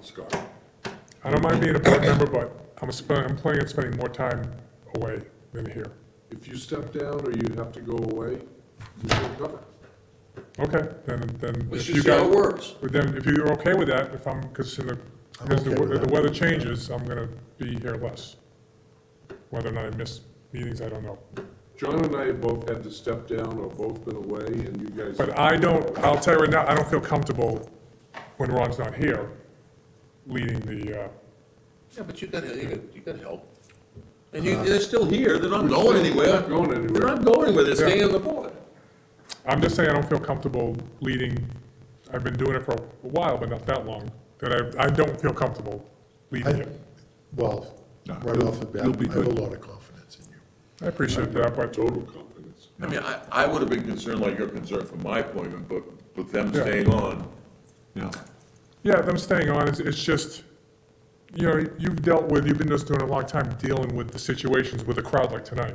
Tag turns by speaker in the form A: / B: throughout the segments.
A: Scott?
B: I don't mind being a board member, but I'm, sp- I'm planning on spending more time away than here.
A: If you step down or you have to go away, you can cover.
B: Okay, then, then. if
C: Let's just
B: you
C: see how it
B: guys-
C: works.
B: But then, if you're okay with that, if I'm, because in the,
D: I'm
B: as the,
D: okay with
B: we- the
D: that.
B: weather changes, I'm gonna be here less. Whether or not I miss meetings, I don't know.
A: John and I have both had to step down or both been away, and you guys.
B: But I don't, I'll tell you right now, I don't feel comfortable when Ron's not here leading the, uh,
C: Yeah, but you got, you got, you got help. And you, they're still here, they're not going anywhere.
A: Not going
C: They're
A: anywhere.
C: not going anywhere, they're staying
B: Yeah.
C: on the board.
B: I'm just saying I don't feel comfortable leading, I've been doing it for a while, but not that long, that I, I don't feel comfortable leading
D: I,
B: it.
D: well,
A: No,
D: right
A: you'll-
D: off the bat, I
A: you'll be
D: have a
A: good.
D: lot of confidence in you.
B: I appreciate that, but
A: Total confidence.
C: I mean, I, I would have been concerned like you're concerned for my appointment, but with them
B: Yeah.
C: staying on.
A: Yeah.
B: Yeah, them staying on, it's, it's just, you know, you've dealt with, you've been just doing it a long time, dealing with the situations with a crowd like tonight.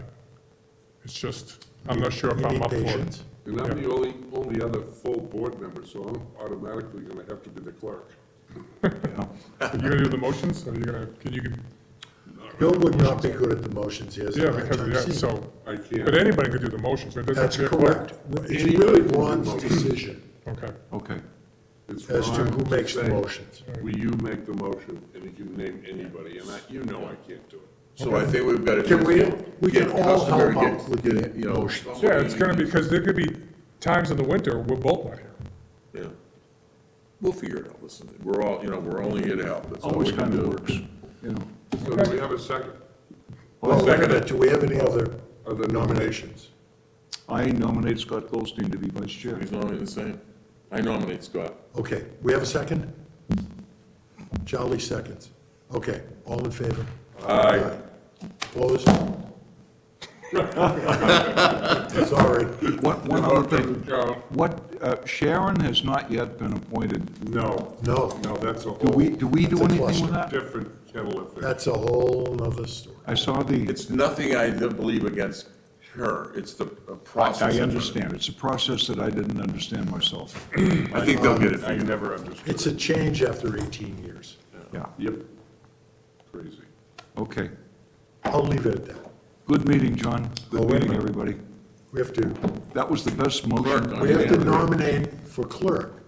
B: It's just, I'm not sure if
D: You
B: I'm
D: need
B: up for it.
D: patience.
A: And I'm the only, only other full board member, so I'm automatically gonna have to be the clerk.
B: Are you gonna do the motions, or are you gonna, can you,
D: Bill would not be good at the motions, he has
B: yeah,
D: a hard
B: because,
D: time
B: yeah,
D: seeing. it.
B: so,
A: I
B: but
A: can't.
B: anybody could do the motions, it doesn't have
D: That's
B: to be a clerk.
D: correct. It's really Ron's decision
B: Okay,
A: Okay. It's
D: as to
A: Ron
D: who makes the
A: saying,
D: motions.
A: Will you make the motion, and he can name anybody, and I, you know I can't do it.
C: So I think we've got to.
D: Can we-
C: get-
D: we can
C: get
D: all help
C: customary, get-
D: out with the
C: get, you know,
D: motions.
B: yeah, it's gonna be, because there could be times in the winter, we're both not here.
C: Yeah. We'll figure it out, listen, we're all, you know, we're only here to help, that's all we
E: Always
C: can
E: kind of
C: do.
E: works.
A: So do we have a second?
D: Well, wait a
C: second.
D: minute, do we have any other
A: Other
D: nominations?
E: I nominate Scott Goldstein to be vice chair.
C: He's nominated the same. I nominate Scott.
D: Okay, we have a second? Charlie seconds. Okay, all in favor? Aye. Opposed? Sorry.
E: What, one other thing,
A: Carl?
E: what, uh, Sharon has not yet been appointed.
A: No.
D: No,
A: No, that's a
E: Do we,
A: whole
E: do we do
D: That's a
E: anything with that?
A: different kettle of fish.
D: that's a whole nother story.
E: I saw the,
C: It's nothing I don't believe against her, it's the uh, process.
E: I
C: of it.
E: understand, it's a process that I didn't understand myself.
C: I think they'll get it
A: I
C: figured out.
A: never understood.
D: It's a change after 18 years.
E: Yeah,
A: Yep. Crazy.
E: okay.
D: I'll leave it at that.
E: Good meeting, John.
D: Oh,
E: Good
D: wait a
E: meeting,
D: minute.
E: everybody.
D: We have to,
E: That was the best motion.
C: Clerk,
D: we have to
C: Yeah.
D: nominate for clerk.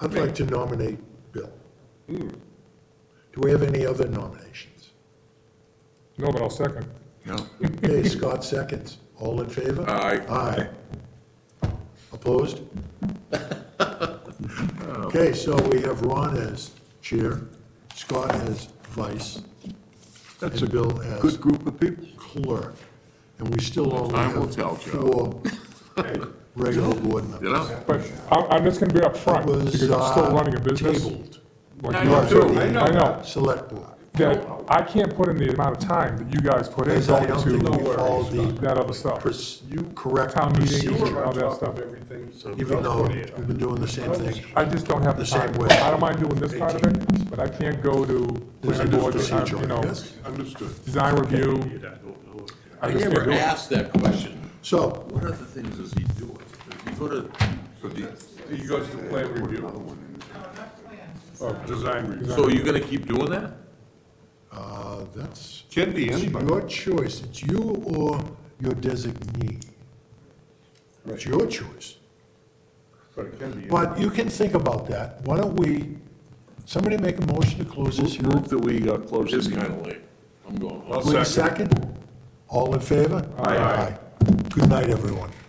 D: I'd like to nominate Bill. Do we have any other nominations?
B: No, but I'll second.
E: Yeah.
D: Okay, Scott seconds. All in favor?
C: Aye.
D: Aye. Opposed? Okay, so we have Ron as chair, Scott as vice,
E: That's
D: and
E: a
D: Bill as
E: good group of people.
D: clerk. And we still only
C: Time will tell,
D: have
C: Joe.
D: four regular board members.
C: You know?
B: But I'm, I'm just gonna be upfront,
D: It was,
B: because I'm still
D: uh,
B: running a business.
D: tabled.
B: Like
C: I
B: you
C: know,
B: are.
D: too. I
B: I know,
D: Select board.
B: that I can't put in the amount of time that you guys put in
D: Because I
B: going
D: don't think we
B: to
D: follow the
B: that other stuff.
D: pers- correct
B: Town meeting,
D: procedure,
B: all that stuff.
D: even though we've been doing the same thing.
B: I just don't have the
D: The same
B: time.
D: way.
B: I don't mind doing this part of it, but I can't go to,
D: There's
B: planning
D: no
B: board, uh,
D: procedure,
B: you know,
D: yes.
A: Understood.
B: design review.
C: I
B: just
C: never
B: can't do it.
C: asked that question.
D: So,
C: What other things is he doing? Does he go to,
A: He goes to plan review. Oh, design review.
C: so are you gonna keep doing that?
D: uh, that's
A: Can be
D: it's your choice. It's you or your designee. It's your choice.
A: But it can be.
D: But you can think about that. Why don't we, somebody make a motion to close this hearing?
E: Move that we uh, close
C: It
E: the
C: is
E: meeting.
C: kinda late. I'm going home.
A: I'll
D: Wait a
A: second.
D: second. All in favor? Aye. Good night, everyone.